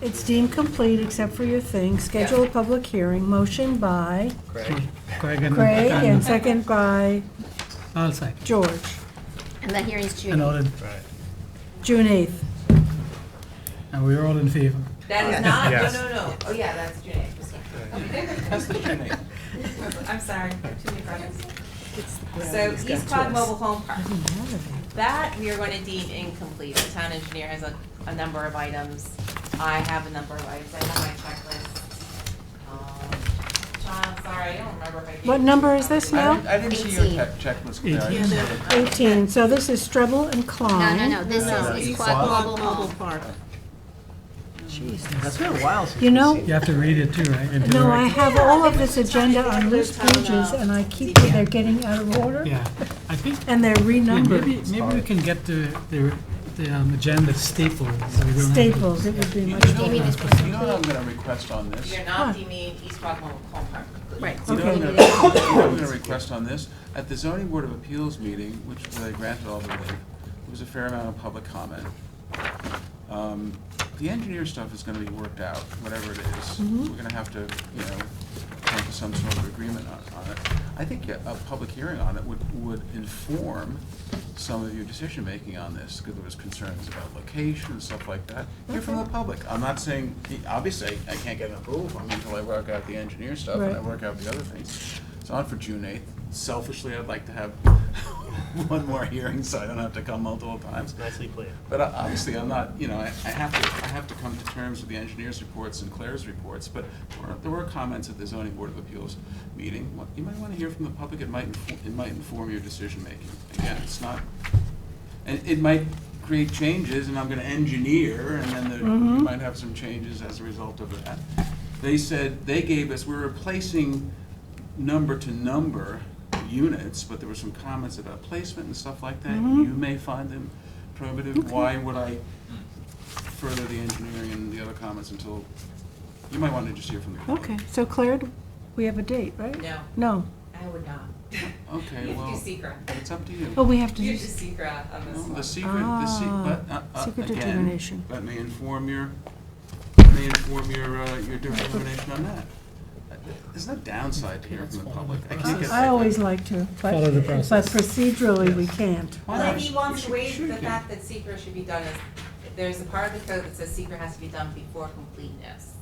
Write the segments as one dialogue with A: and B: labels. A: It's deemed complete except for your thing. Schedule a public hearing. Motion by
B: Craig?
C: Craig and.
A: Craig and second by
C: All side,
A: George.
D: And the hearing's June.
C: and all in,
B: Right.
A: June 8th.
C: and we're all in favor.
E: That is not,
B: Yes.
E: no, no, no. Oh, yeah, that's June 8th.
B: That's the beginning.
E: I'm sorry, too many projects. So East Quad Mobile Home Park, that we are going to deem incomplete. The town engineer has a, a number of items. I have a number of items. I have my checklist. Um, John, I'm sorry, I don't remember if I gave.
A: What
E: you
A: number is
E: a copy.
A: this
F: I
A: now?
F: didn't- I didn't see your
D: Eighteen.
F: check- checklist. Claire. I didn't see it.
A: 18. So this is Strebel and
D: No,
A: Klein.
D: no, no, this
F: No,
D: is,
F: no.
D: is Quad Mobile Mobile
G: Park.
B: That's been a while since.
A: You
B: we've
A: know-
B: seen
C: You have to read it too, right? into the
A: No, I
C: record.
A: have all of this agenda on loose pages, and I keep, they're getting out of order,
C: Yeah, I think,
A: and they're
C: yeah,
A: renumbered.
C: maybe, maybe we can get the, the, the um, agenda stapled, so we don't have to.
A: Staples, it would be much
F: You know
A: better.
D: Amy
F: what-
D: just wants to-
F: You know what I'm gonna request on this?
E: You're
F: You
A: Huh.
E: not deeming East Quad Mobile Home Park complete.
D: Right.
F: know what I'm
A: Okay.
F: gonna- you know what I'm gonna request on this? At the zoning board of appeals meeting, which I granted all the relief, there was a fair amount of public comment. Um, The engineer stuff is gonna be worked out, whatever it is. We're gonna have to, you know, come to some sort of agreement on, on it. I think a, a public hearing on it would, would inform some of your decision-making on this, because there was concerns about location and stuff like that. Hear from the public. I'm not saying, obviously, I can't get an approval from you until I work out the engineer stuff and I
A: Right.
F: work out the other things. It's on for June eighth. Selfishly, I'd like to have one more hearing, so I don't have to come multiple times.
B: it. Nicely played.
F: But I- obviously, I'm not, you know, I I have to, I have to come to terms with the engineer's reports and Claire's reports, but there were- there were comments at the zoning board of appeals meeting. What- You might want to hear from the public, it might, infor- it might inform your decision-making. Again, it's not, and it might create changes, and I'm going to engineer, and then there- you might have some changes as a result of that. They said, they gave us, we're replacing number to number units, but there were some comments about placement and stuff like that.
A: Mm-hmm.
F: You may find them prohibitive. Why would I further the engineering and the other comments until, you might want to just hear from the public.
A: Okay, so Claire, we have a date, right?
E: No,
A: No,
E: I would not.
F: Okay,
E: You have to do
F: well,
E: secret.
F: it's up to
A: oh,
F: you.
A: we have to,
E: You have
A: do-
E: to secret on this
F: No,
E: one.
F: The secret, the secret, but, uh,
A: Ah,
F: uh,
A: secret
F: again,
A: determination.
F: let me inform your, let me inform your, uh, your determination on that. Uh, There's no downside to hearing from the public. I can't get.
A: I always like to, but
C: Follow the
A: but
C: process.
A: procedurally, we can't.
F: Why
E: Well,
F: not?
E: if he wants to
F: Should-
E: waive
F: should
E: the
F: do.
E: fact that secret should be done as, there's a part of the code that says secret has to be done before completeness.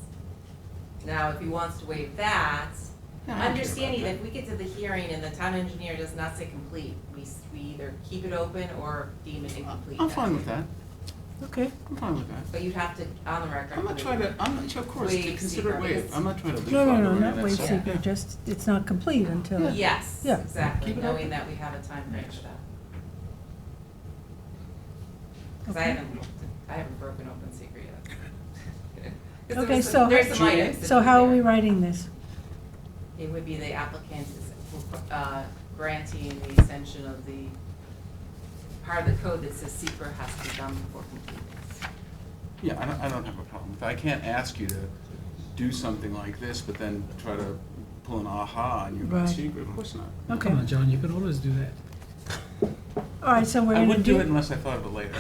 E: Now, if he wants to waive that,
F: Yeah, I don't care about
E: understanding
F: that.
E: that if we get to the hearing and the town engineer does not say complete, we, s- we either keep it open or deem it incomplete.
F: I'm fine with that.
A: Okay,
F: I'm fine with that.
E: But you'd have to, on the record.
F: I'm not trying to, I'm not, of course,
E: Waive
F: consider it
E: secret.
F: waived. I'm not trying to leave
A: no,
F: out
A: no, no,
F: the
A: not
F: word,
A: wave
F: that's all.
A: secret, just, it's not complete until,
E: Yes,
A: Yeah.
E: exactly,
F: Keep it
E: knowing
F: open.
E: that we have a time frame for that. Because I
A: Okay.
E: haven't, looked at- I haven't broken open secret yet. 'Cause there
A: Okay,
E: was some-
A: so-
E: There's some items. that
A: so how are we
E: there.
A: writing this?
E: It would be the applicant is, uh, granting the extension of the part of the code that says secret has to be done before completeness.
F: Yeah, I don't, I don't have a problem with that. I can't ask you to do something like this, but then try to pull an aha on you about
A: Right.
F: secret. Of course not.
A: Okay,
C: Oh, Come on, John, you can always do that.
A: all right, so we're
F: I
A: gonna
F: wouldn't do it
A: do,
F: unless I thought of it later.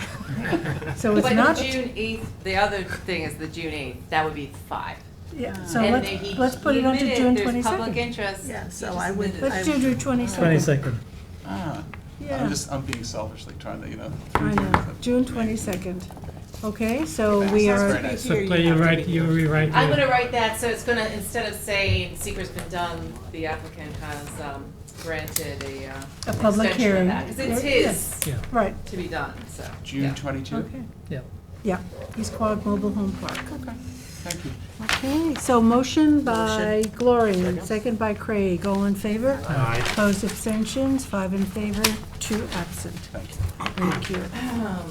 A: so it's
E: But
A: not,
E: the June eighth, the other thing is the June eighth, that would be five.
A: yeah, so
E: And
A: let's,
E: they- he-
A: let's put
E: he
A: it onto
E: admitted
A: June
E: there's Public
A: 22nd.
E: interest.
G: Yeah,
E: He
G: so
E: just
G: I would-
E: admitted it.
A: Let's do June 22nd.
C: Twenty-second.
F: Ah,
A: Yeah.
F: I'm just, I'm being selfishly trying to, you know.
A: I know, June twenty-second. Okay, so we
F: Sounds
A: are,
F: very nice.
C: So Claire, you write, you rewrite.
E: I'm
C: the-
E: gonna write that, so it's gonna, instead of saying secret's been done, the applicant has um, granted a
A: a
E: uh,
A: public
E: extension of
A: hearing.
E: that, because it's
A: Yeah,
E: his
C: Yeah,
A: Right,
E: to be done, so. yeah.
F: June twenty-two?
A: okay,
C: yeah.
A: yeah, East Quad Mobile Home Park.
F: Thank you.
A: Okay, so motion by Gloria, second by Craig, all in favor?
B: Aye.
A: Opposed, abstentions, five in favor, two absent.
F: Thank you.
A: Thank you.
E: Um,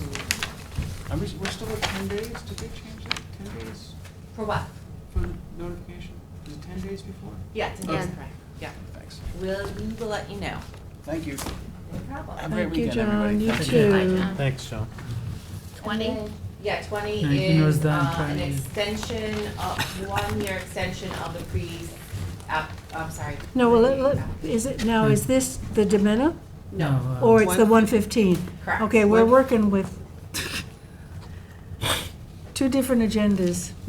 F: I'm, just- we're still at ten days? Did they change that? Ten days
E: For what?
F: for notification? Is it ten days before?
E: Yeah, to
D: Yeah.
E: correct, yeah.
F: Thanks.
E: We'll, we will let you know.
F: Thank you.
E: No problem.
F: Have a great
A: Thank you,
F: weekend,
A: John,
F: everybody.
A: you
F: Thank
A: too.
D: Bye,
B: Thanks, John.
D: Twenty?
E: Yeah, twenty
C: No, he knows
E: is
C: that
E: uh, an
C: entirely.
E: extension of, one-year extension of the pre, app, I'm sorry.
A: No, well, let-
E: pre-
A: let- is it, now, is this the Domena,
C: No, uh,
A: or it's the one fifteen?
E: Correct.
A: Okay, we're working with two different agendas.